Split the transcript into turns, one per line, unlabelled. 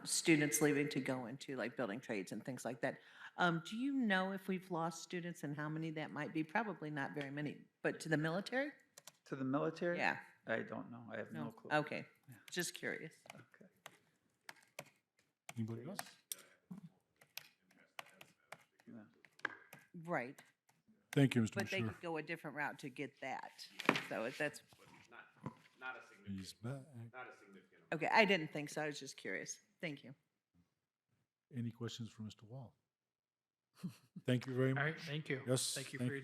students leaving to go into like building trades and things like that. Um, do you know if we've lost students and how many that might be? Probably not very many, but to the military?
To the military?
Yeah,
I don't know. I have no
no,
clue.
okay, just curious.
Okay.
Anybody else?
No.
Right,
Thank you, Mr.
but they
Bashir.
could go a different route to get that. So if that's,
He's back.
okay, I didn't think so, I was just curious. Thank you.
Any questions for Mr. Wall? Thank you very
All
much.
right, thank you.
Yes,
Thank you
thank
for your